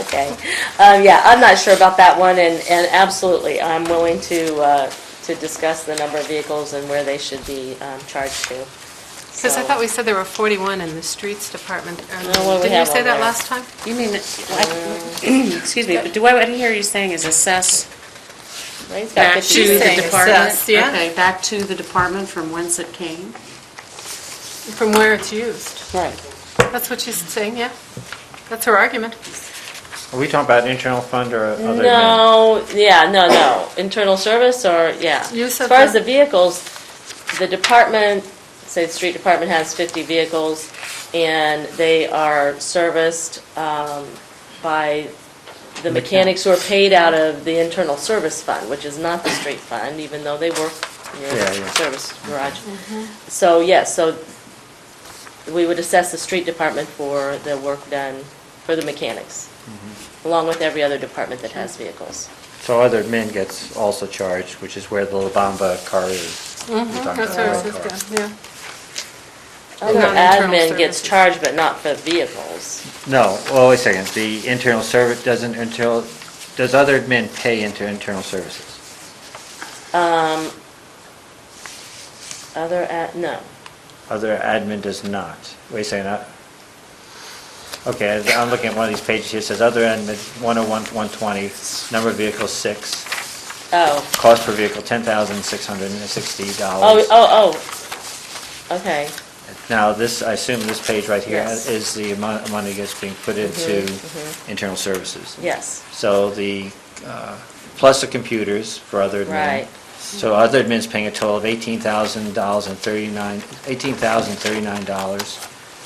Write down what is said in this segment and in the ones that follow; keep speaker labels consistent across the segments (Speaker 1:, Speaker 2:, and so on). Speaker 1: Okay, um, yeah, I'm not sure about that one, and, and absolutely, I'm willing to, uh, to discuss the number of vehicles and where they should be, um, charged to.
Speaker 2: Because I thought we said there were 41 in the streets department. um,
Speaker 1: No, what do Oh, we
Speaker 2: Didn't you
Speaker 1: have
Speaker 2: say
Speaker 1: on
Speaker 2: that
Speaker 1: there?
Speaker 2: last time?
Speaker 3: You mean, I- excuse me, but do I, what I hear you saying is assess
Speaker 1: So, right, it's got
Speaker 3: back to
Speaker 1: 56.
Speaker 3: the
Speaker 2: saying
Speaker 3: department?
Speaker 2: assess, yeah.
Speaker 3: Okay, back to the department from whence it came?
Speaker 2: From where it's used.
Speaker 3: Right.
Speaker 2: That's what she's saying, yeah? That's her argument.
Speaker 4: Are we talking about internal fund or other? than-
Speaker 1: No, yeah, no, no, internal service or, yeah.
Speaker 2: You said
Speaker 1: As far as
Speaker 2: the-
Speaker 1: the vehicles, the department, say the street department has fifty vehicles and they are serviced, um, by the mechanics who are paid out of the internal service fund, which is not the street fund, even though they work near
Speaker 4: Yeah, Mm-hmm.
Speaker 1: the
Speaker 4: yeah.
Speaker 1: service garage. So, yes, so we would assess the street department for the work done, for the mechanics,
Speaker 4: Mm-hmm.
Speaker 1: along with every other department that has vehicles.
Speaker 4: So other admin gets also charged, which is where the La Bamba car is.
Speaker 1: Mm-hmm.
Speaker 4: We're talking about
Speaker 2: That's what I
Speaker 4: the
Speaker 2: was
Speaker 4: red car.
Speaker 2: just, yeah.
Speaker 1: Other
Speaker 2: Non-internal
Speaker 1: admin gets
Speaker 2: Oh, services.
Speaker 1: charged, but not for vehicles.
Speaker 4: No, well, wait a second, the internal service, doesn't internal, does other admin pay into internal services?
Speaker 1: Other, ad- no.
Speaker 4: Other admin does not. Wait a second, I- okay, I- I'm looking at one of these pages here, it says other admin, 101, 120, number of vehicles, six,
Speaker 1: Oh,
Speaker 4: cost per vehicle, $10,660.
Speaker 1: oh, oh, oh, okay.
Speaker 4: Now, this, I assume this page right here
Speaker 1: Yes. Mm-hmm,
Speaker 4: is the amount of money that's being put into internal services.
Speaker 1: Yes,
Speaker 4: So the, uh, plus the computers for other admin.
Speaker 1: Right.
Speaker 4: So other admin's paying a total of eighteen thousand dollars and thirty-nine, eighteen thousand thirty-nine dollars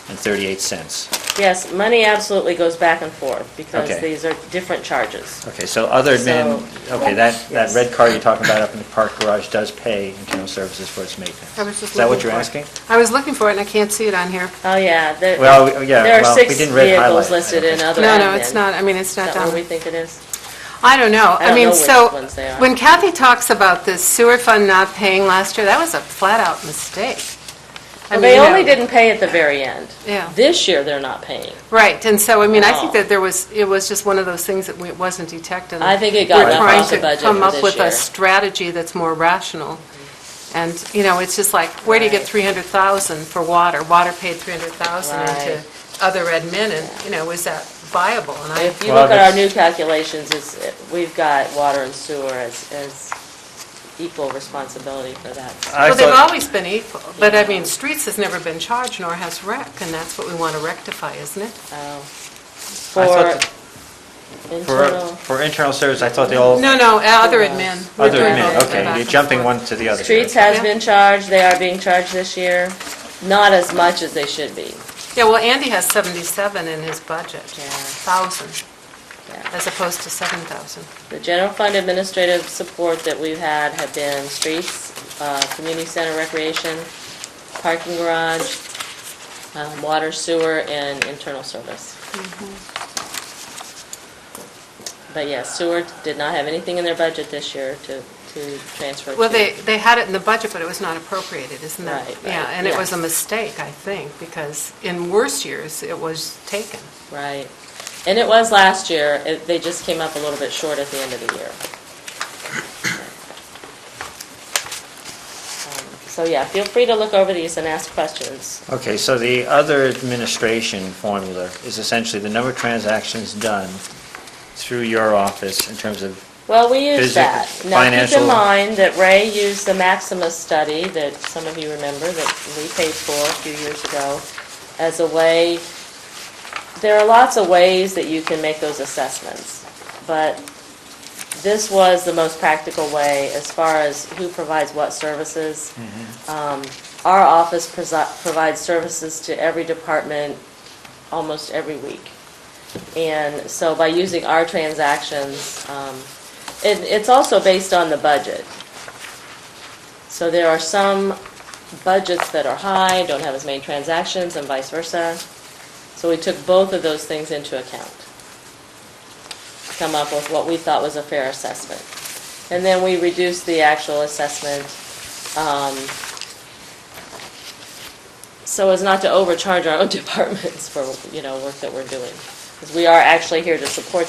Speaker 4: and thirty-eight cents.
Speaker 1: yes, money absolutely goes back and forth because
Speaker 4: Okay.
Speaker 1: these are different charges.
Speaker 4: Okay, so other admin,
Speaker 1: So-
Speaker 4: okay, that, that
Speaker 1: Yes.
Speaker 4: red car you're talking about up in the park garage does pay internal services for its maintenance.
Speaker 2: I was just
Speaker 4: Is that what
Speaker 2: looking
Speaker 4: you're
Speaker 2: for it.
Speaker 4: asking?
Speaker 2: I was looking for it and I can't see it on here.
Speaker 1: Oh, yeah, there,
Speaker 4: Well, we- yeah,
Speaker 1: there
Speaker 4: well,
Speaker 1: are
Speaker 4: we
Speaker 1: six
Speaker 4: didn't red highlight
Speaker 1: vehicles
Speaker 4: it.
Speaker 1: listed in other
Speaker 2: No, no,
Speaker 1: admin.
Speaker 2: it's not, I mean, it's
Speaker 1: Is
Speaker 2: not
Speaker 1: that what
Speaker 2: down.
Speaker 1: we think it is?
Speaker 2: I don't know.
Speaker 1: I don't
Speaker 2: I
Speaker 1: know
Speaker 2: mean,
Speaker 1: which
Speaker 2: so,
Speaker 1: ones they are.
Speaker 2: when Kathy talks about the sewer fund not paying last year, that was a flat-out mistake. I
Speaker 1: Well, they
Speaker 2: mean, you
Speaker 1: only
Speaker 2: know.
Speaker 1: didn't pay at the very end.
Speaker 2: Yeah.
Speaker 1: This year, they're not paying.
Speaker 2: Right, and so, I mean, I think
Speaker 1: No.
Speaker 2: that there was, it was just one of those things that we- it wasn't detected.
Speaker 1: I think it got left off the budget for
Speaker 2: We're trying to come up
Speaker 1: this
Speaker 2: with
Speaker 1: year.
Speaker 2: a strategy that's more rational. And, you know, it's just like, where do you get
Speaker 1: Right.
Speaker 2: 300,000 for water? Water paid 300,000
Speaker 1: Right.
Speaker 2: into other admin, and, you know, is that viable? And I,
Speaker 1: If you
Speaker 4: Well,
Speaker 1: look at our new
Speaker 4: that's-
Speaker 1: calculations, it's, we've got water and sewer as, as equal responsibility for that.
Speaker 4: I
Speaker 2: well, they've
Speaker 4: thought-
Speaker 2: always been equal, but I mean, streets has never been charged, nor has rec, and that's what we want to rectify, isn't it?
Speaker 1: Oh.
Speaker 4: I thought
Speaker 1: For
Speaker 4: For,
Speaker 1: internal,
Speaker 4: for internal service, I thought they all,
Speaker 2: No, no, uh, other admin. We're
Speaker 4: other
Speaker 2: doing
Speaker 4: admin,
Speaker 2: both
Speaker 4: okay,
Speaker 2: back
Speaker 4: you're
Speaker 2: and
Speaker 4: jumping
Speaker 2: forth.
Speaker 4: one to the other.
Speaker 1: streets
Speaker 4: Okay.
Speaker 1: has
Speaker 2: Yeah.
Speaker 1: been charged, they are being charged this year, not as much as they should be.
Speaker 2: Yeah, well, Andy has 77 in his budget,
Speaker 1: Yeah.
Speaker 2: 1,000,
Speaker 1: Yeah.
Speaker 2: as opposed to 7,000.
Speaker 1: The general fund administrative support that we've had have been streets, uh, community center recreation, parking garage, um, water sewer, and internal service.
Speaker 2: Mm-hmm.
Speaker 1: But yes, sewer did not have anything in their budget this year to, to transfer to.
Speaker 2: Well, they, they had it in the budget, but it was not appropriated, isn't that?
Speaker 1: Right,
Speaker 2: Yeah,
Speaker 1: right,
Speaker 2: and it was
Speaker 1: yeah.
Speaker 2: a mistake, I think, because in worse years, it was taken.
Speaker 1: Right. And it was last year, It- they just came up a little bit short at the end of the year. Um, So yeah, feel free to look over these and ask questions.
Speaker 4: Okay, so the other administration formula is essentially the number of transactions done through your office in terms of,
Speaker 1: Well, we use
Speaker 4: Physic-
Speaker 1: that. Now, keep
Speaker 4: financial-
Speaker 1: in mind that Ray used the Maximus study that some of you remember that we paid for a few years ago as a way, there are lots of ways that you can make those assessments, but this was the most practical way as far as who provides what services.
Speaker 4: Mm-hmm.
Speaker 1: Um, Our office presi- provides services to every department almost every week. And so by using our transactions, um, it, it's also based on the budget. So there are some budgets that are high, don't have as many transactions, and vice versa. So we took both of those things into account to come up with what we thought was a fair assessment. And then we reduced the actual assessment, um, so as not to overcharge our own departments for, you know, work that we're doing. Because we are actually here to support